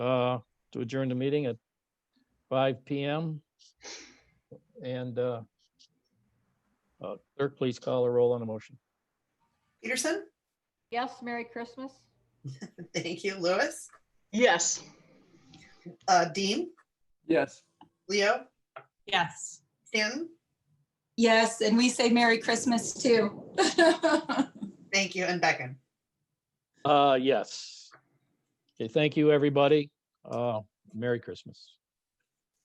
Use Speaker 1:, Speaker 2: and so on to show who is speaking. Speaker 1: uh, to adjourn the meeting at five PM. And uh, uh, clerk, please call a roll on the motion.
Speaker 2: Peterson?
Speaker 3: Yes, Merry Christmas.
Speaker 2: Thank you, Lewis.
Speaker 4: Yes.
Speaker 2: Uh, Dean?
Speaker 5: Yes.
Speaker 2: Leo?
Speaker 6: Yes.
Speaker 2: Stanton?
Speaker 7: Yes, and we say Merry Christmas too.
Speaker 2: Thank you, and Beckon.
Speaker 1: Uh, yes. Okay, thank you, everybody. Uh, Merry Christmas.